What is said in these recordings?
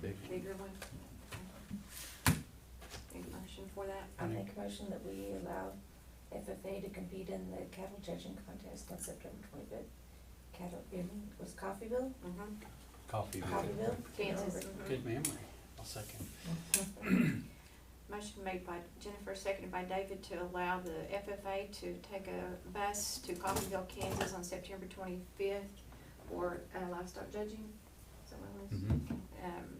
Big. bigger one? Any motion for that? I make a motion that we allow FFA to compete in the cattle judging contest on September twenty-fifth. Cattle, I mean, was Coffeyville? Mm-hmm. Coffee. Coffeyville? Kansas. Good memory. I'll second. Motion made by Jennifer, seconded by David to allow the FFA to take a bus to Coffeyville, Kansas on September twenty-fifth for uh, livestock judging. Is that what it was? Mhm. Um,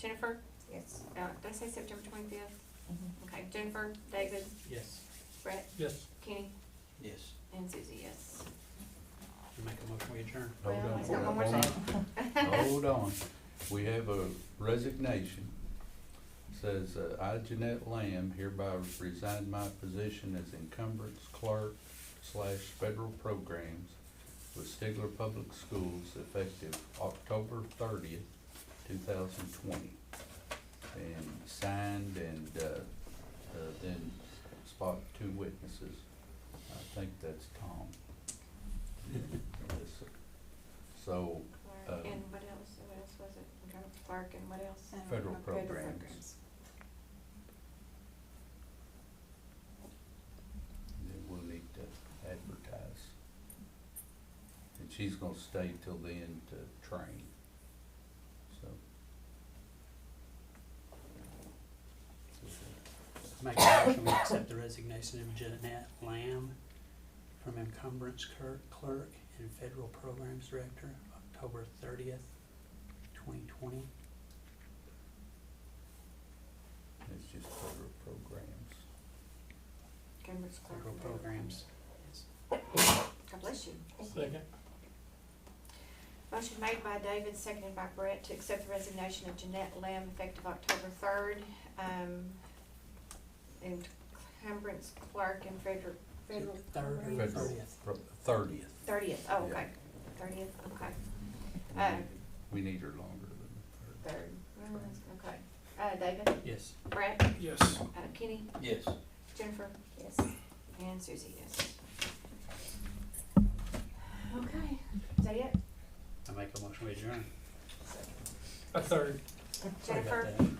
Jennifer, Yes. uh, did I say September twenty-fifth? Mhm. Okay, Jennifer, David, Yes. Brett, Yes. Kenny, Yes. and Susie, yes. Make a motion, we adjourn. Well, Hold on, he's hold got on, one more hold thing. on. Hold on, we have a resignation. Says, uh, I, Jeanette Lamb, hereby resign my position as encumbrance clerk slash federal programs with Stigler Public Schools effective October thirtieth, two thousand twenty. And signed and, uh, uh, then spot two witnesses. I think that's Tom. Yes. So, Clerk, And what else, what else was it? I'm trying to Clark and what else? Federal Federal programs. programs. that we'll need to advertise. And she's gonna stay till then to train, so. Make a motion, we accept the resignation of Jeanette Lamb from encumbrance cur- clerk and federal programs director, October thirtieth, twenty twenty. It's just federal programs. Cambridge Clark. Federal and Federal programs. Yes. God bless you. Second. Motion made by David, seconded by Brett, to accept the resignation of Jeanette Lamb effective October third. Um, and Cumbrance Clark and Frederick, Federal Third or Federal. thirtieth. Pro- Thirtieth, thirtieth, oh, Yeah. okay, thirtieth, okay, Uh, we need her longer than the third. third, Mm, okay. Uh, David, Yes. Brett, Yes. uh, Kenny, Yes. Jennifer, Yes. and Susie, yes. Okay, is that it? I make a motion, we adjourn. Sorry about Jennifer? that.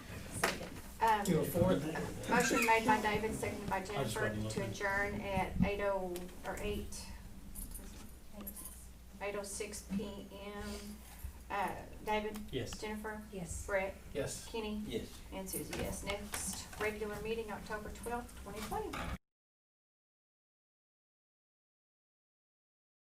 Second. Um, You were fourth. Motion made by David, seconded by Jennifer wasn't to looking. adjourn at eight oh, or eight, eight oh six P M. Uh, David, Yes. Jennifer, Yes. Brett, Yes. Kenny, Yes. and Susie, yes. Next regular meeting, October twelfth, twenty twenty.